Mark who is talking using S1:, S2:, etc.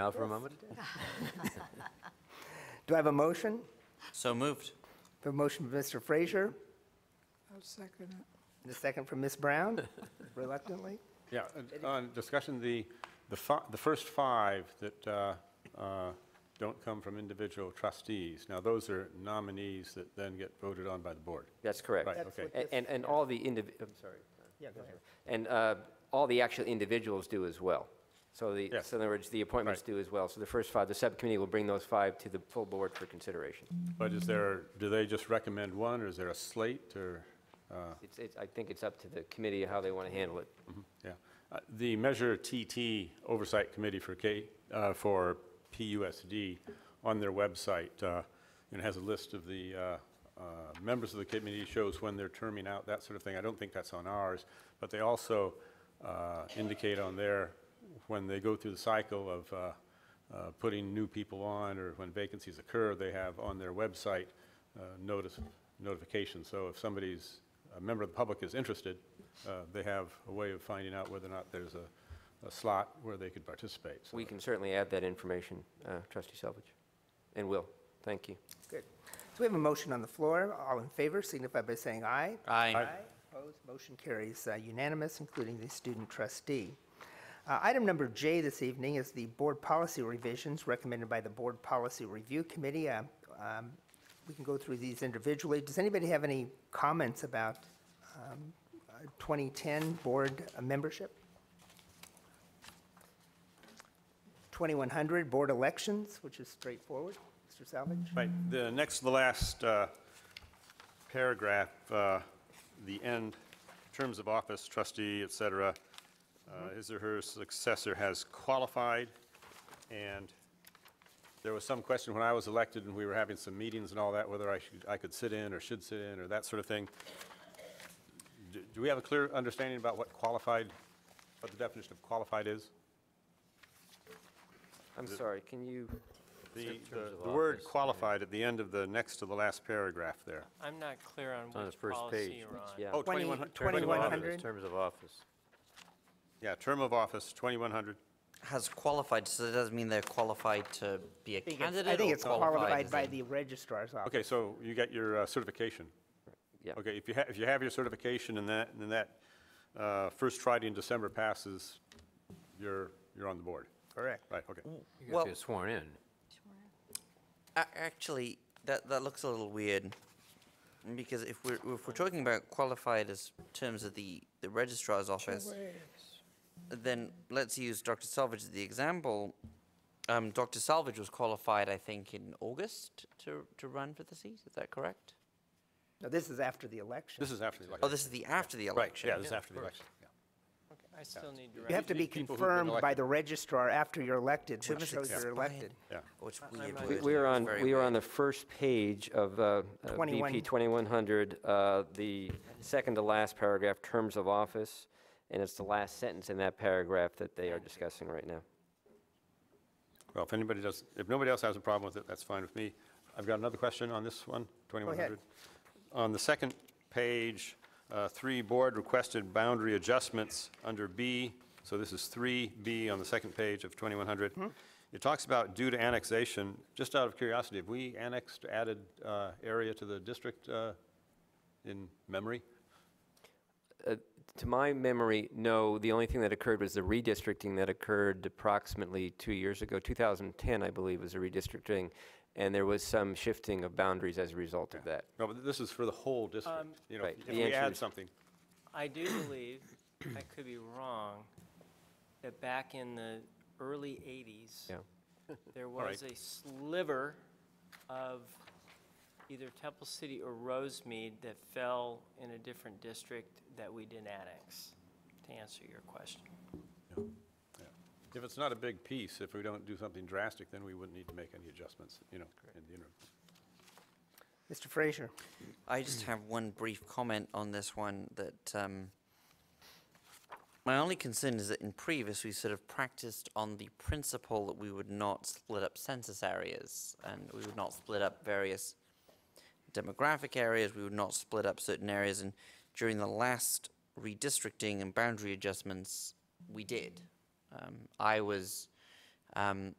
S1: Now for a moment?
S2: Do I have a motion?
S3: So moved.
S2: The motion from Mr. Frazier,
S4: I'll second it.
S2: and a second from Ms. Brown, reluctantly.
S5: Yeah, uh, on discussion, the, the fi- the first five that uh, uh, don't come from individual trustees, now those are nominees that then get voted on by the board.
S1: That's correct.
S5: Right,
S2: That's
S5: okay.
S2: what
S1: And,
S2: this-
S1: and- and all the indiv, I'm sorry.
S2: Yeah, go ahead.
S1: And uh, all the actual individuals do as well. So the,
S5: Yes.
S1: so in other words, the appointments
S5: Right.
S1: do as well. So the first five, the subcommittee will bring those five to the full board for consideration.
S5: But is there, do they just recommend one, or is there a slate, or, uh,
S1: It's, it's, I think it's up to the committee how they want to handle it.
S5: yeah? Uh, The Measure TT Oversight Committee for K, uh, for PUSD, on their website, uh, you know, has a list of the uh, uh, members of the committee, shows when they're terming out, that sort of thing. I don't think that's on ours, but they also uh, indicate on there when they go through the cycle of uh, uh, putting new people on or when vacancies occur, they have on their website uh, notice, notification. So if somebody's, a member of the public is interested, uh, they have a way of finding out whether or not there's a, a slot where they could participate. So
S1: We can certainly add that information, uh, trustee Selvage, and will. Thank you.
S2: Good. So we have a motion on the floor. All in favor signify by saying aye.
S3: Aye.
S2: Opposed, motion carries uh, unanimous, including the student trustee. Uh, Item number J this evening is the board policy revisions recommended by the Board Policy Review Committee. Uh, um, We can go through these individually. Does anybody have any comments about um, uh, 2010 board uh, membership? 2100 board elections, which is straightforward. Mr. Salvage?
S5: Right, the next to the last uh, paragraph, uh, the end, terms of office, trustee, et cetera, uh, his or her successor has qualified, and there was some question when I was elected and we were having some meetings and all that, whether I should, I could sit in or should sit in or that sort of thing. Do do we have a clear understanding about what qualified, what the definition of qualified is?
S1: I'm sorry, can you,
S5: The, the- the word qualified at the end of the next to the last paragraph there.
S6: I'm not clear on
S3: On the
S6: which
S3: first page.
S6: policy you're on.
S3: Yeah.
S5: Oh,
S2: 20
S5: 2100
S2: 2100.
S3: Terms of office.
S5: Yeah, term of office, 2100.
S7: Has qualified, so that doesn't mean they're qualified to be a
S2: I think it's-
S7: candidate?
S2: I think
S7: or
S2: it's qualified
S7: as
S2: by
S7: in-
S2: the registrar's office.
S5: Okay, so you got your uh, certification.
S1: yeah.
S5: Okay, if you have, if you have your certification and that, and that uh, first Friday in December passes, you're, you're on the board.
S2: Correct.
S5: Right, okay.
S3: You
S7: Well,
S3: have to get sworn in.
S7: a- actually, that, that looks a little weird. Because if we're, if we're talking about qualified as terms of the, the registrar's office, then let's use Dr. Salvage as the example. Um, Dr. Salvage was qualified, I think, in August to, to run for the seat, is that correct?
S2: Now, this is after the election.
S5: This is after the
S7: Oh,
S5: election.
S7: this is the, after the
S5: Right,
S7: election?
S5: yeah, this is after the election. yeah.
S6: I still need
S2: You have to
S6: direction.
S2: be
S5: people who've been
S2: confirmed by
S5: elected.
S2: the registrar after you're elected,
S7: Term
S2: which
S7: is
S2: shows you're
S7: expired.
S2: elected.
S5: Yeah.
S7: Oh, it's
S6: not-
S7: weird.
S1: We-
S7: word.
S1: We are
S7: It's
S1: on,
S7: very
S1: we are
S7: weird.
S1: on the first page of uh, uh,
S2: 21.
S1: BP 2100, uh, the second to last paragraph, terms of office, and it's the last sentence in that paragraph that they are discussing right now.
S5: Well, if anybody does, if nobody else has a problem with it, that's fine with me. I've got another question on this one, 2100. On the second page, uh, three board requested boundary adjustments under B. So this is 3B on the second page of 2100. It talks about due to annexation. Just out of curiosity, have we annexed, added uh, area to the district uh, in memory?
S1: To my memory, no, the only thing that occurred was the redistricting that occurred approximately two years ago, 2010, I believe, was the redistricting, and there was some shifting of boundaries as a result of that.
S5: No, but this is for the whole district. You know,
S1: Um, Right,
S5: if
S1: the
S5: we
S1: answer
S5: add
S1: is-
S5: something.
S6: I do believe, I could be wrong, that back in the early 80s,
S1: Yeah.
S6: there
S5: right.
S6: was a sliver of either Temple City or Rosemead that fell in a different district that we didn't annex, to answer your question.
S5: If it's not a big piece, if we don't do something drastic, then we wouldn't need to make any adjustments, you know, in the interim.
S2: Mr. Frazier,
S7: I just have one brief comment on this one that um, my only concern is that in previous we sort of practiced on the principle that we would not split up census areas and we would not split up various demographic areas, we would not split up certain areas. And during the last redistricting and boundary adjustments, we did. Um, I was um,